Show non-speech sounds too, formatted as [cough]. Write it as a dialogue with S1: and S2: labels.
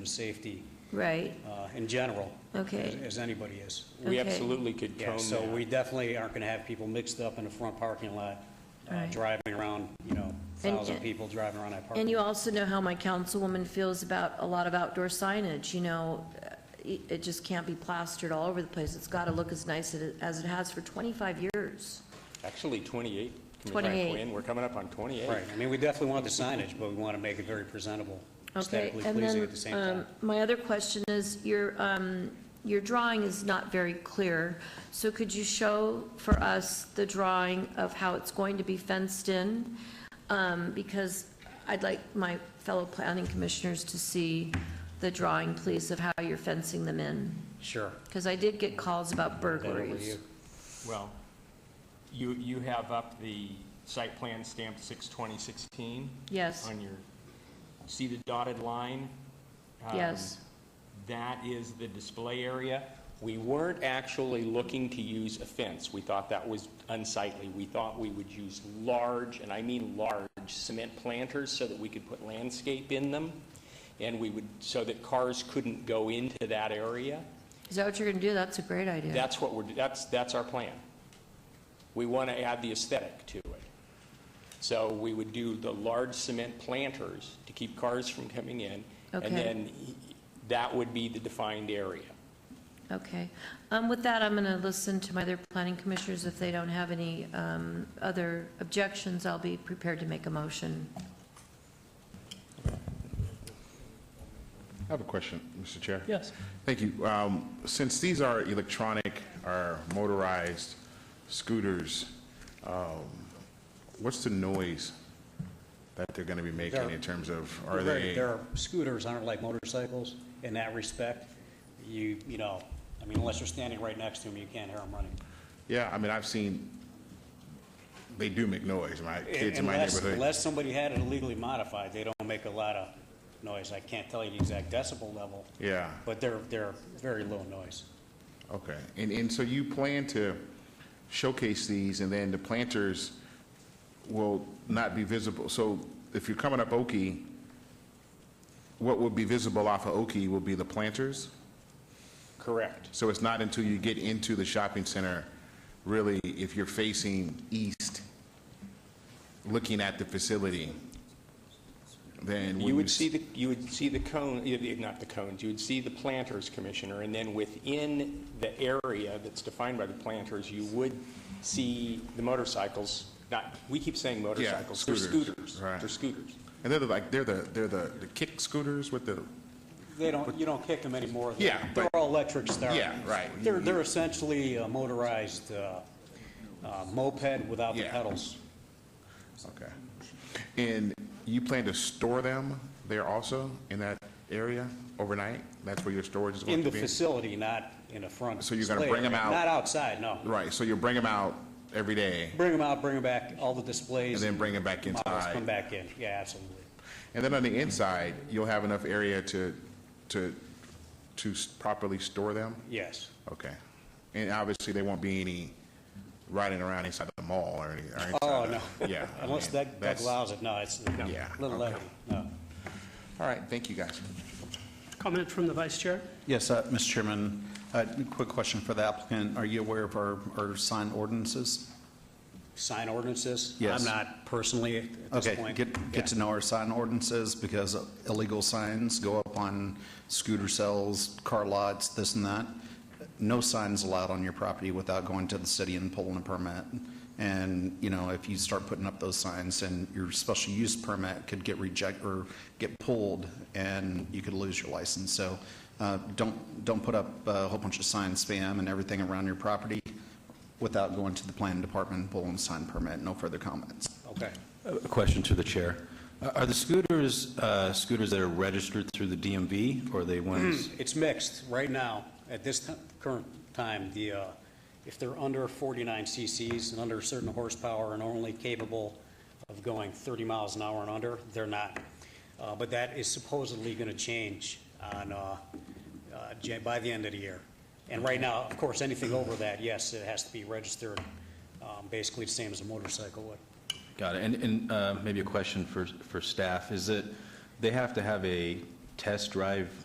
S1: and safety
S2: Right,
S1: uh, in general.
S2: Okay.
S1: as- As anybody is.
S2: Okay.
S3: We absolutely could
S1: Yeah,
S3: cone
S1: so we
S3: that.
S1: definitely aren't going to have people mixed up in the front parking lot, uh,
S2: Right.
S1: driving around, you know,
S2: And-
S1: thousand people driving around that
S2: and
S1: parking.
S2: you also know how my councilwoman feels about a lot of outdoor signage, you know, uh, it, it just can't be plastered all over the place, it's got to look as nice as it- as it has for 25 years.
S3: Actually, 28. Commissioner
S2: 28.
S3: Quinn, We're coming up on 28.
S1: Right, I mean, we definitely want the signage, but we want to make it very presentable,
S2: Okay,
S1: aesthetically
S2: and
S1: pleasing
S2: then,
S1: at the same
S2: um,
S1: time.
S2: my other question is, your, um, your drawing is not very clear, so could you show for us the drawing of how it's going to be fenced in? Um, because I'd like my fellow planning commissioners to see the drawing, please, of how you're fencing them in,
S1: Sure.
S2: because I did get calls about
S1: Hand over to
S2: burglaries.
S1: you.
S3: Well, you, you have up the site plan stamped 6/2016
S2: Yes,
S3: on your, see the dotted line? Um,
S2: yes,
S3: That is the display area. We weren't actually looking to use a fence. We thought that was unsightly. We thought we would use large, and I mean large, cement planters so that we could put landscape in them, and we would, so that cars couldn't go into that area.
S2: is that what you're gonna do? That's a great idea.
S3: That's what we're, that's, that's our plan. We want to add the aesthetic to it. So we would do the large cement planters to keep cars from coming in.
S2: Okay.
S3: And then that would be the defined area.
S2: Okay. Um, With that, I'm going to listen to my other planning commissioners. If they don't have any um, other objections, I'll be prepared to make a motion.
S4: I have a question, Mr. Chair.
S5: Yes.
S4: Thank you. Um, Since these are electronic or motorized scooters, um, what's the noise that they're going to be making
S1: They're-
S4: in terms of, are
S1: They're very-
S4: they,
S1: They're, scooters aren't like motorcycles in that respect. You, you know, I mean, unless you're standing right next to them, you can't hear them running.
S4: yeah, I mean, I've seen, they do make noise, my kids in my
S1: Unless-
S4: neighborhood.
S1: Unless somebody had it illegally modified, they don't make a lot of noise. I can't tell you the exact decibel level,
S4: Yeah,
S1: but they're, they're very low noise.
S4: okay. And, and so you plan to showcase these, and then the planters will not be visible. So if you're coming up Oki, what would be visible off of Oki will be the planters?
S3: Correct.
S4: So it's not until you get into the shopping center, really, if you're facing east, looking at the facility, then. when
S3: You would see the, you would see the cone, eh, eh, not the cones, you would see the planters, Commissioner, and then within the area that's defined by the planters, you would see the motorcycles, not, we keep saying motorcycles, they're
S4: scooters,
S3: scooters.
S4: right.
S3: They're scooters.
S4: And they're the, like, they're the, they're the the kick scooters with the,
S1: They don't, you don't kick them anymore. They're-
S4: Yeah, but-
S1: They're all electric start.
S4: Yeah, right.
S1: They're, they're essentially a motorized uh, uh, moped without the
S4: Yeah.
S1: pedals.
S4: okay. And you plan to store them there also, in that area, overnight? That's where your storage is
S1: In
S4: going
S1: the
S4: to be?
S1: facility, not in a front.
S4: So you're gonna
S1: display
S4: bring 'em
S1: area.
S4: out-
S1: Not outside, no.
S4: Right, so you bring them out every day,
S1: Bring them out, bring them back, all the displays.
S4: and then bring them back
S1: models
S4: inside?
S1: Come back in, yeah, absolutely.
S4: And then on the inside, you'll have enough area to, to, to s- properly store them?
S1: Yes,
S4: Okay. And obviously, there won't be any riding around inside the mall or any, or inside.
S1: Oh,
S4: the-
S1: no. [laughs]
S4: Yeah. I
S1: unless that,
S4: mean,
S1: that
S4: that's-
S1: allows it, no, it's no,
S4: Yeah,
S1: a little
S4: okay.
S1: heavy, no.
S4: All right, thank you, guys.
S5: Comment from the vice chair?
S6: Yes, uh, Mr. Chairman, uh, quick question for the applicant. Are you aware of our our sign ordinances?
S1: Sign ordinances?
S6: Yes.
S1: I'm not personally at this
S6: Okay,
S1: point.
S6: get,
S1: Yeah.
S6: get to know our sign ordinances because illegal signs go up on scooter cells, car lots, this and that. No signs allowed on your property without going to the city and pulling a permit. And, you know, if you start putting up those signs and your special use permit could get reject, or get pulled and you could lose your license. So, uh, don't, don't put up a whole bunch of sign spam and everything around your property without going to the planning department and pulling a sign permit. No further comments.
S1: Okay.
S7: A question to the chair. Are the scooters, uh, scooters that are registered through the DMV, or are they ones?
S1: It's mixed right now, at this ti- current time, the, uh, if they're under 49 CCs and under a certain horsepower and only capable of going 30 miles an hour and under, they're not. Uh, But that is supposedly going to change on, uh, uh, Ja- by the end of the year. And right now, of course, anything over that, yes, it has to be registered, um, basically the same as a motorcycle would.
S7: Got it. And, and uh, maybe a question for, for staff. Is it, they have to have a test drive